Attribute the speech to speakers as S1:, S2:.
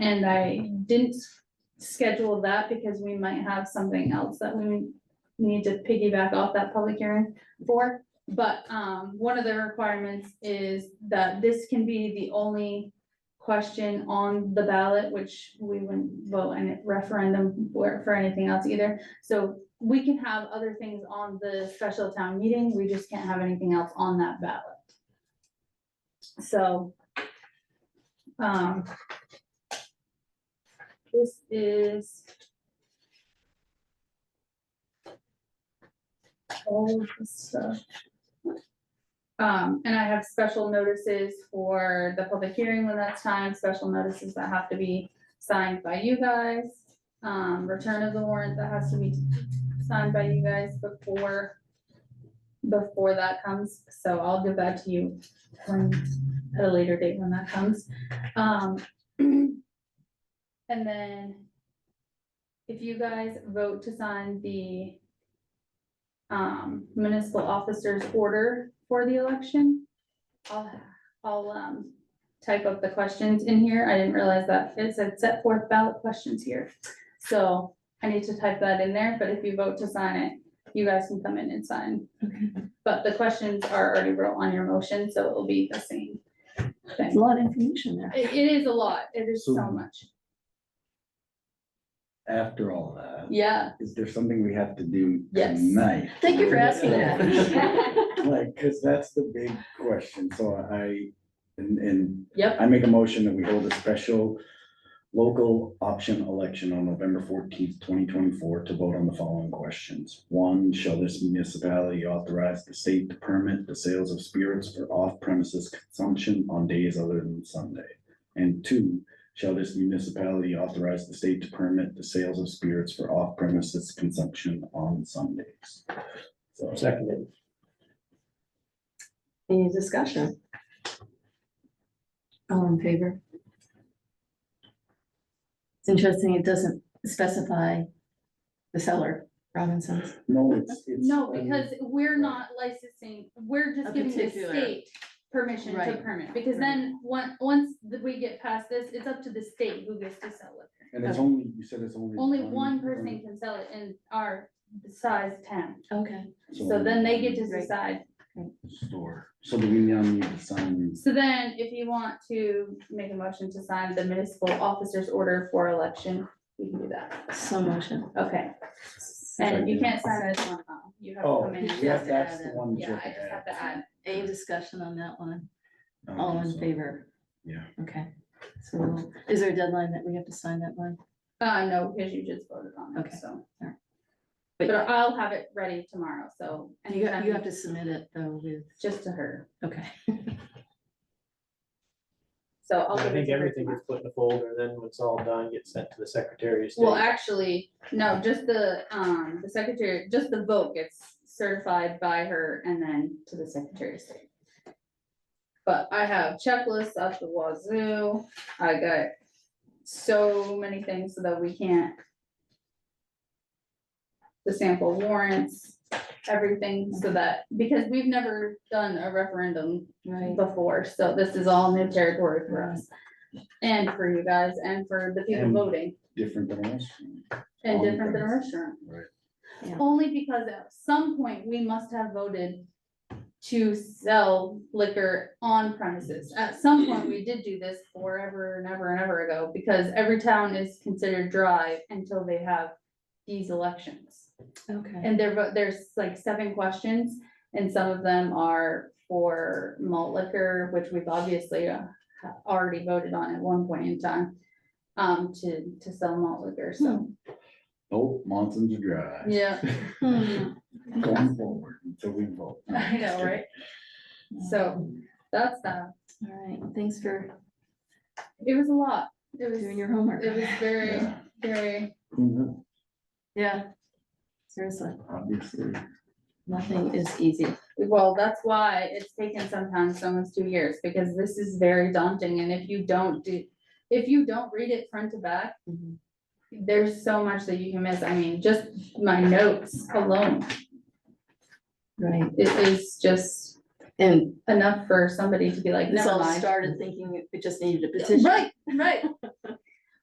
S1: And I didn't s- schedule that because we might have something else that we need to piggyback off that public hearing for. But, um, one of the requirements is that this can be the only question on the ballot, which we wouldn't vote in a referendum for, for anything else either. So we can have other things on the special town meeting, we just can't have anything else on that ballot. So, um, this is. All of this stuff. Um, and I have special notices for the public hearing when that's time, special notices that have to be signed by you guys. Um, return of the warrant that has to be signed by you guys before. Before that comes, so I'll give that to you when, at a later date when that comes. Um, and then if you guys vote to sign the um, municipal officer's order for the election, I'll, I'll, um, type up the questions in here. I didn't realize that it said set forth ballot questions here. So I need to type that in there, but if you vote to sign it, you guys can come in and sign. But the questions are already wrote on your motion, so it'll be the same.
S2: It's a lot of information there.
S1: It- it is a lot. It is so
S3: So-
S1: much.
S3: after all that,
S1: Yeah.
S3: is there something we have to do
S1: Yes.
S3: tonight?
S2: Thank you for asking
S1: that.
S3: Like, cause that's the big question, so I, and, and
S1: Yep,
S3: I make a motion that we hold a special local option election on November fourteenth, twenty twenty-four to vote on the following questions. One, shall this municipality authorize the state to permit the sales of spirits for off-premises consumption on days other than Sunday? And two, shall this municipality authorize the state to permit the sales of spirits for off-premises consumption on Sundays? So,
S4: Seconded.
S2: Any discussion? All in favor? It's interesting, it doesn't specify the seller, Robinson's.
S3: no, it's, it's.
S1: no, because we're not licensing, we're
S2: A
S1: just giving the
S2: particular-
S1: state permission to
S2: Right.
S1: permit, because then, on- once th- we get past this, it's up to the state who gets to sell it.
S3: And it's only, you said it's only.
S1: Only one person can sell it in our size town,
S2: Okay.
S1: so then they get to
S2: Right.
S1: decide.
S3: Store, so do we now need to sign,
S1: So then, if you want to make a motion to sign the municipal officer's order for election, we can do that,
S2: So motion.
S1: okay? And you can't sign it on, you have to
S3: Oh,
S1: come in. and
S2: yeah,
S1: just-
S3: that's the one that you
S1: Yeah,
S3: have
S1: I
S3: to
S1: just have
S3: add.
S1: to add,
S2: Any discussion on that one?
S3: I don't
S2: All
S3: think
S2: in
S3: Um, so.
S2: favor?
S3: Yeah.
S2: Okay. So we'll- is there a deadline that we have to sign that one?
S1: Uh, no, because you just voted on it,
S2: Okay,
S1: so.
S2: alright. But-
S1: But I'll have it ready tomorrow, so.
S2: You have, you
S1: anytime,
S2: have to submit it though with,
S1: Just to her,
S2: okay.
S1: so I'll give
S4: I
S1: it
S4: think
S1: to her.
S4: everything
S1: tomorrow.
S4: gets put in a folder, then when it's all done, gets sent to the Secretary of State.
S1: Well, actually, no, just the, um, the secretary, just the vote gets certified by her and then to the secretary of state. But I have checklists up the wazoo, I got so many things so that we can't. The sample warrants, everything, so that, because we've never done a referendum
S2: Right.
S1: before, so this is all new territory for us. And for you guys and for the people
S3: And-
S1: voting.
S3: Different than us.
S1: And
S3: All the
S1: different than a
S3: things.
S1: restaurant.
S3: Right.
S2: Yeah.
S1: Only because at some point, we must have voted to sell liquor on premises. At some point, we did do this forever and ever and ever ago, because every town is considered dry until they have these elections.
S2: Okay.
S1: And there, but there's like seven questions, and some of them are for malt liquor, which we've obviously uh, ha- already voted on at one point in time. Um, to, to sell malt liquor, so,
S3: Vote Monson's dry.
S1: yeah.
S2: Hmm.
S3: Going forward until we vote. No,
S1: I know,
S3: just
S1: right? So- That's that.
S2: All right, thanks for
S1: It was a lot. It was,
S2: doing
S1: it
S2: your homework.
S1: was
S3: kidding.
S1: very,
S3: Yeah.
S1: very,
S3: Who knew?
S2: Yeah. Seriously,
S3: Obviously,
S2: nothing is easy.
S1: well, that's why it's taken sometimes almost two years, because this is very daunting, and if you don't do, if you don't read it front to back,
S2: Mhm.
S1: there's so much that you can miss. I mean, just my notes alone,
S2: Right,
S1: it is just
S2: and
S1: enough for somebody to be like,
S2: this
S1: never
S2: all
S1: mind.
S2: started thinking it just needed a petition.
S1: Right, right.